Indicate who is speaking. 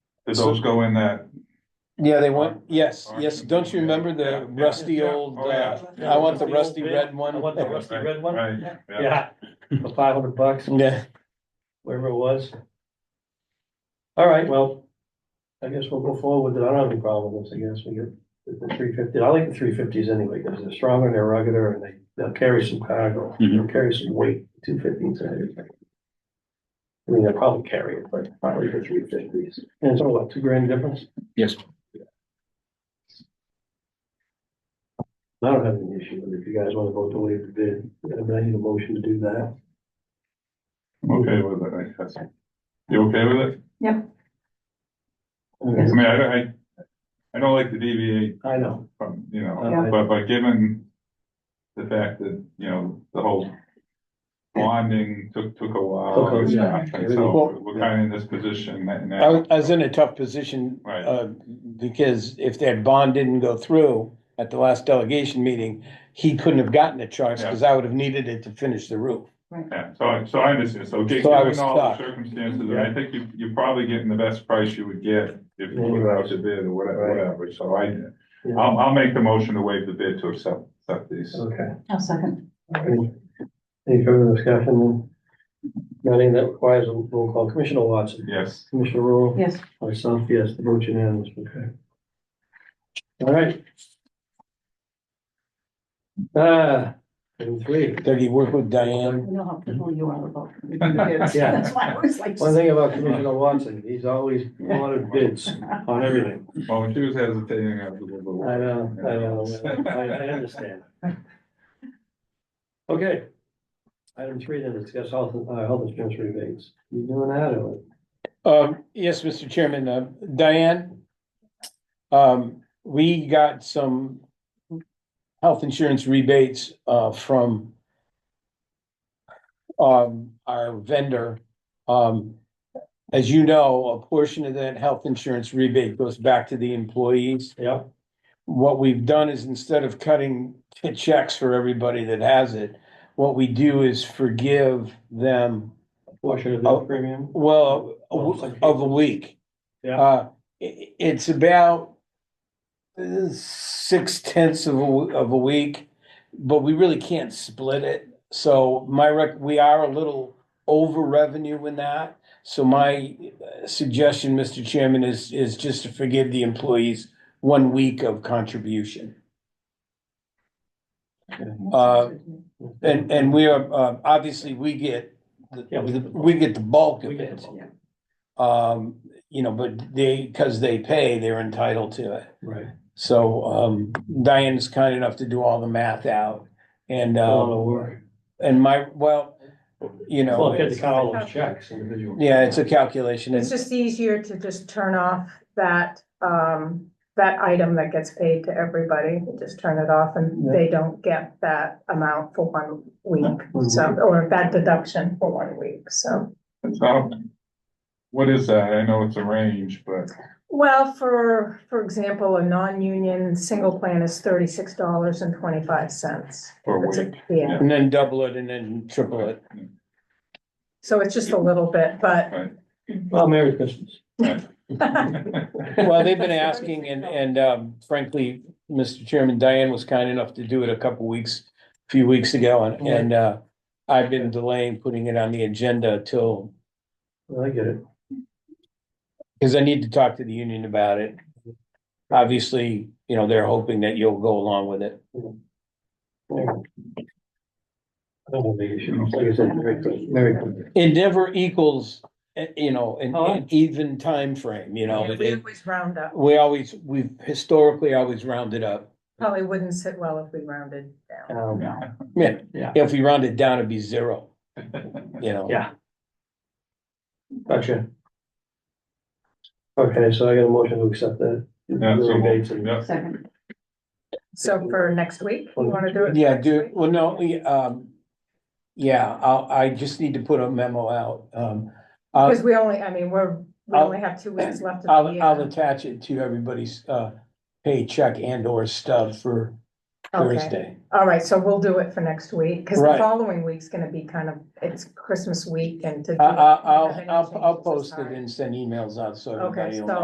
Speaker 1: Did those go in that?
Speaker 2: Yeah, they want, yes,
Speaker 1: Aren't
Speaker 2: yes,
Speaker 1: you-
Speaker 2: don't you remember
Speaker 1: Yeah,
Speaker 2: the
Speaker 1: yeah,
Speaker 2: rusty
Speaker 1: yeah.
Speaker 2: old,
Speaker 1: Oh, yeah.
Speaker 2: uh,
Speaker 1: Yeah.
Speaker 2: I want the rusty red
Speaker 3: I
Speaker 2: one?
Speaker 3: want the rusty
Speaker 1: Right,
Speaker 3: red one,
Speaker 1: Right, yeah,
Speaker 3: yeah, for five hundred bucks,
Speaker 2: Yeah,
Speaker 3: wherever it was. All right, well, I guess we'll go forward with it, I don't have any problem with this, I guess, we get the- the three fifty, I like the three fifties anyway, because they're stronger, they're ruggeder, and they, they'll carry some cargo, they'll carry some weight, two fifties. I mean, they'll probably carry it, but probably the three fifties, and it's only what, two grand difference?
Speaker 4: Yes.
Speaker 3: I don't have any issue with it, if you guys wanna vote to waive the bid, I need a motion to do that.
Speaker 1: I'm okay with it, I guess. You okay with it? I
Speaker 3: Okay.
Speaker 1: mean, I, don't- I, I don't like to deviate
Speaker 3: I know,
Speaker 1: from, you know,
Speaker 3: Yeah.
Speaker 1: but, but given the fact that, you know, the whole bonding took, took a while.
Speaker 3: Took a-
Speaker 4: yeah.
Speaker 1: And so we're kind of in this position that
Speaker 2: I
Speaker 1: now,
Speaker 2: was, I was in a tough position,
Speaker 1: Right.
Speaker 2: uh, because if that bond didn't go through at the last delegation meeting, he couldn't have gotten a choice, because I would have needed it to finish the roof.
Speaker 1: yeah, so I, so I understand, so gi-
Speaker 2: So I
Speaker 1: given
Speaker 2: was
Speaker 1: all the
Speaker 2: stuck.
Speaker 1: circumstances, I think you, you're probably getting the best price you would get if you were out to bid or whatever,
Speaker 3: Right.
Speaker 1: whatever, so I,
Speaker 3: Yeah.
Speaker 1: I'll, I'll make the motion to waive the bid to accept, accept these.
Speaker 3: okay.
Speaker 5: I'll second.
Speaker 3: Any any further discussion? Nothing that requires a roll call. Commissioner Watson.
Speaker 1: Yes.
Speaker 3: Commissioner Rule.
Speaker 5: Yes,
Speaker 3: Myself, yes, the vote unanimous, okay. All right. Ah, item three.
Speaker 2: Dougie, work with Diane.
Speaker 5: you know how picky you are about. bids.
Speaker 3: Yeah.
Speaker 5: That's why I was like.
Speaker 3: One thing about Commissioner Watson, he's always wanted bids on everything.
Speaker 1: Well, when she was hesitating, I was a little bit.
Speaker 3: I know, I know, I, I understand. Okay. Item three, then discuss health, uh, health insurance rebates. You doing that or?
Speaker 2: Um, yes, Mr. Chairman, uh, Diane. Um, we got some health insurance rebates, uh, from um, our vendor. Um, as you know, a portion of that health insurance rebate goes back to the employees.
Speaker 3: Yep.
Speaker 2: What we've done is instead of cutting checks for everybody that has it, what we do is forgive them
Speaker 3: Portion of the
Speaker 2: Oh.
Speaker 3: premium?
Speaker 2: well, a
Speaker 3: Well,
Speaker 2: w-
Speaker 3: it's like-
Speaker 2: of a week.
Speaker 3: Yeah.
Speaker 2: Uh, i- i- it's about uh, six tenths of a, w- of a week, but we really can't split it. So my rec, we are a little over revenue in that. So my uh, suggestion, Mr. Chairman, is, is just to forgive the employees one week of contribution. Uh, And, and we are, uh, obviously, we get, the-
Speaker 3: Yeah, we get the bulk.
Speaker 2: we get the bulk of
Speaker 3: We get
Speaker 2: it.
Speaker 3: the bulk.
Speaker 2: Um, you know, but they, because they pay, they're entitled to it.
Speaker 3: Right.
Speaker 2: So, um, Diane's kind enough to do all the math out. And,
Speaker 3: A lot
Speaker 2: uh,
Speaker 3: of work.
Speaker 2: and my, well, you know,
Speaker 3: Well, get to count all those checks individually.
Speaker 2: yeah, it's a calculation.
Speaker 6: It's
Speaker 2: It's,
Speaker 6: just easier to just turn off that, um, that item that gets paid to everybody, just turn it off and they don't get that amount for one week. So, or that deduction for one week, so.
Speaker 1: So, what is that? I know it's a range, but
Speaker 6: Well, for, for example, a non-union single plan is thirty-six dollars and twenty-five cents.
Speaker 1: for a week.
Speaker 6: Yeah,
Speaker 2: and then double it and then triple it.
Speaker 6: so it's just a little bit, but
Speaker 3: Well, Merry Christmas.
Speaker 2: Well, they've been asking and, and, um, frankly, Mr. Chairman, Diane was kind enough to do it a couple weeks, a few weeks ago. And, and, uh, I've been delaying putting it on the agenda till,
Speaker 3: Well, I get it.
Speaker 2: because I need to talk to the union about it. Obviously, you know, they're hoping that you'll go along with it.
Speaker 3: I don't have big issues. Like I said, Merry Christmas. Merry Christmas.
Speaker 2: It never equals, eh, you know, an,
Speaker 3: Oh.
Speaker 2: an even timeframe, you know,
Speaker 6: we
Speaker 2: it,
Speaker 6: always round up.
Speaker 2: we always, we've historically always rounded up.
Speaker 6: Probably wouldn't sit well if we rounded down.
Speaker 3: Um,
Speaker 2: Yeah,
Speaker 3: Yeah.
Speaker 2: if we rounded down, it'd be zero, you know.
Speaker 3: Yeah. Gotcha. Okay, so I got a motion to accept that.
Speaker 1: Yeah, so,
Speaker 3: Rebates and-
Speaker 1: yeah,
Speaker 5: Second,
Speaker 6: So for next week, you wanna do it?
Speaker 2: Yeah,
Speaker 6: next
Speaker 2: do,
Speaker 6: week?
Speaker 2: well, no, we, um, yeah, I'll, I just need to put a memo out, um. I'll-
Speaker 6: Because we only, I mean, we're, we
Speaker 2: I'll-
Speaker 6: only have two weeks left of the
Speaker 2: I'll, I'll
Speaker 6: year.
Speaker 2: attach it to everybody's, uh, paycheck and or stub for
Speaker 6: Okay.
Speaker 2: Thursday.
Speaker 6: All right, so we'll do it for next week, because the
Speaker 2: Right.
Speaker 6: following week's gonna be kind of, it's Christmas week and to. do
Speaker 2: I,
Speaker 6: it,
Speaker 2: I,
Speaker 6: if you have
Speaker 2: I'll,
Speaker 6: any
Speaker 2: I'll, I'll
Speaker 6: changes, it's
Speaker 2: post it
Speaker 6: hard.
Speaker 2: and send emails out so
Speaker 6: Okay,
Speaker 2: everybody will
Speaker 6: so
Speaker 2: know.